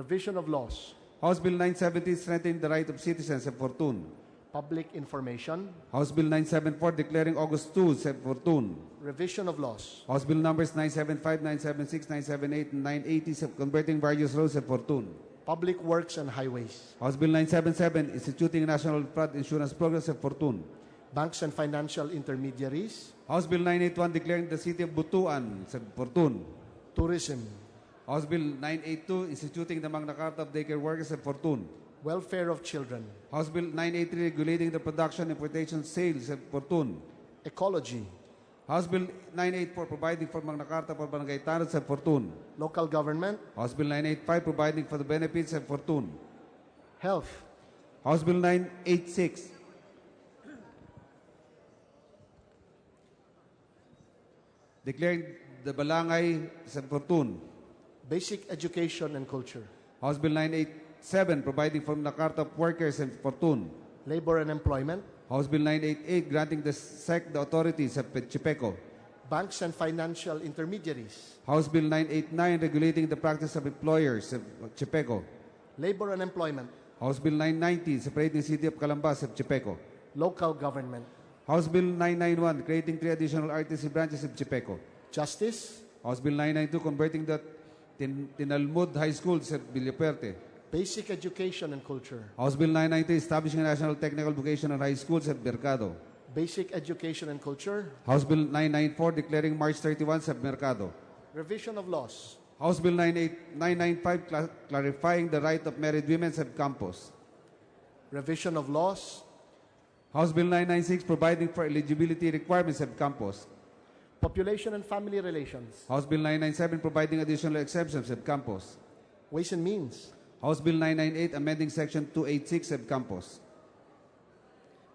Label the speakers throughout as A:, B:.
A: revision of laws,
B: House Bill 970 strengthening the right of citizens and fortune.
A: public information,
B: House Bill 974 declaring August 2 sub fortune.
A: revision of laws,
B: House Bill numbers 975, 976, 978, and 980 sub converting various roads and fortune.
A: public works and highways,
B: House Bill 977 instituting national flood insurance program sub fortune.
A: banks and financial intermediaries,
B: House Bill 981 declaring the city of Butuan sub fortune.
A: tourism,
B: House Bill 982 instituting the Magna Carta of daycare workers sub fortune.
A: welfare of children,
B: House Bill 983 regulating the production, importation, sales sub fortune.
A: ecology,
B: House Bill 984 providing for Magna Carta for Barangay Tanod sa Fortun.
A: local government,
B: House Bill 985 providing for the benefits of Fortun.
A: health,
B: House Bill 986 declaring the Balangay sa Fortun.
A: basic education and culture,
B: House Bill 987 providing for Magna Carta of Workers and Fortun.
A: labor and employment,
B: House Bill 988 granting the SEC the authority sa Chipeco.
A: banks and financial intermediaries,
B: House Bill 989 regulating the practice of employers sa Chipeco.
A: labor and employment,
B: House Bill 990, separating City of Calambas of Chepeco.
A: local government,
B: House Bill 991, creating three additional RTC branches of Chepeco.
A: justice,
B: House Bill 992, converting the Tin- Tinalmud High School sa Villaperte.
A: basic education and culture,
B: House Bill 990, establishing a National Technical Vocational High School sa Mercado.
A: basic education and culture,
B: House Bill 994, declaring March 31 sa Mercado.
A: revision of laws,
B: House Bill 98 995, cla- clarifying the right of married women sa campus.
A: revision of laws,
B: House Bill 996, providing for eligibility requirements sa campus.
A: population and family relations,
B: House Bill 997 providing additional exemptions of campus.
A: ways and means,
B: House Bill 998 amending section 286 of campus.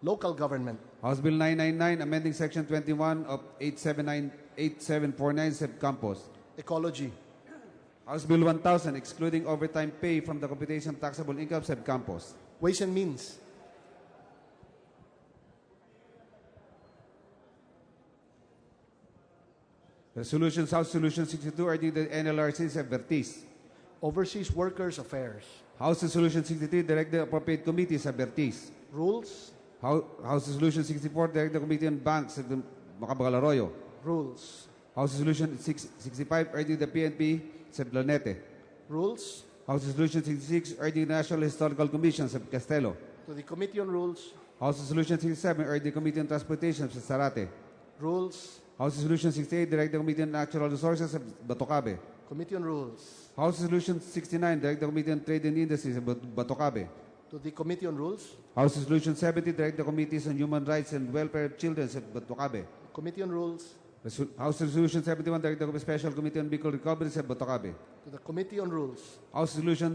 A: local government,
B: House Bill 999 amending section 21 of 879 8749 sub campus.
A: ecology,
B: House Bill 1000 excluding overtime pay from the computation of taxable income sub campus.
A: ways and means,
B: Resolutions House Solution 62 urging the NLRC sub Vertiz.
A: overseas workers affairs,
B: House Solution 63 direct the appropriate committee sub Vertiz.
A: rules,
B: Hou- House Solution 64 direct the committee on banks sub Macabagaloroyo.
A: rules,
B: House Resolution 6, 65 urging the PNP sa Planete.
A: rules,
B: House Resolution 66 urging the National Historical Commission sa Castelo.
A: to the Committee on Rules,
B: House Resolution 67 urging the Committee on Transportation sa Sarate.
A: rules,
B: House Resolution 68 direct the Committee on Natural Resources sa Batocabe.
A: Committee on Rules,
B: House Resolution 69 direct the Committee on Trade and Industry sa Bat- Batocabe.
A: to the Committee on Rules,
B: House Resolution 70 direct the Committees on Human Rights and Welfare of Children sa Batocabe.
A: Committee on Rules,
B: Resu- House Resolution 71 direct the Special Committee on Bicol Recovery sa Batocabe.
A: to the Committee on Rules,
B: House Resolution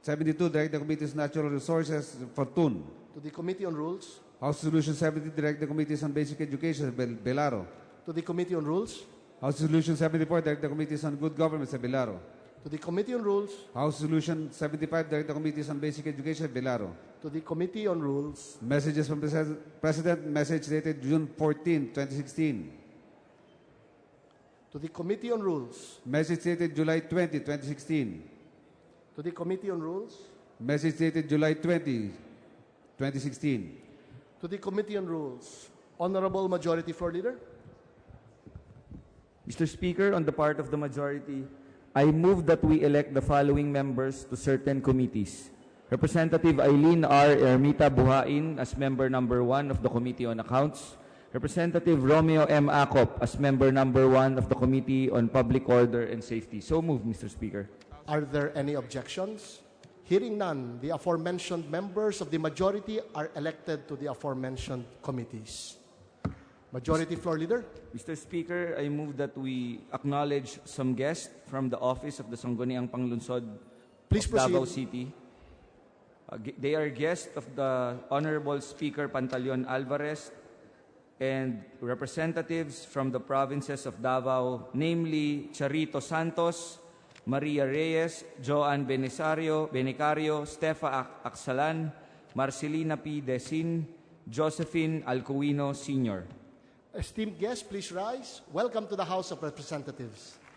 B: 72, direct the Committee's Natural Resources, Fortun.
A: to the Committee on Rules,
B: House Resolution 70, direct the Committees on Basic Education, Bel- Belaro.
A: to the Committee on Rules,
B: House Resolution 74, direct the Committees on Good Government, sa Belaro.
A: to the Committee on Rules,
B: House Resolution 75, direct the Committees on Basic Education, Belaro.
A: to the Committee on Rules,
B: Messages from Pres- President, message dated June 14, 2016.
A: to the Committee on Rules,
B: Message dated July 20, 2016.
A: to the Committee on Rules,
B: Message dated July 20, 2016.
A: to the Committee on Rules. Honorable Majority Floor Leader,
C: Mr. Speaker, on the part of the majority, I move that we elect the following members to certain committees. Representative Eileen R. Ermita Buhain as member number one of the Committee on Accounts. Representative Romeo M. Acop as member number one of the Committee on Public Order and Safety. So moved, Mr. Speaker.
A: are there any objections? Hearing none, the aforementioned members of the majority are elected to the aforementioned committees. Majority Floor Leader,
C: Mr. Speaker, I move that we acknowledge some guests from the office of the Sangguniang Panglunsod
A: Please
C: of Davao
A: proceed.
C: City. Uh, gu- they are guests of the Honorable Speaker Pantaleon Alvarez and representatives from the provinces of Davao, namely Charito Santos, Maria Reyes, Joan Benisario, Benicario, Stefa Ac- Acsalan, Marcelina P. Desin, Josephine Alcuino Sr.
A: esteemed guests, please rise. Welcome to the House of Representatives.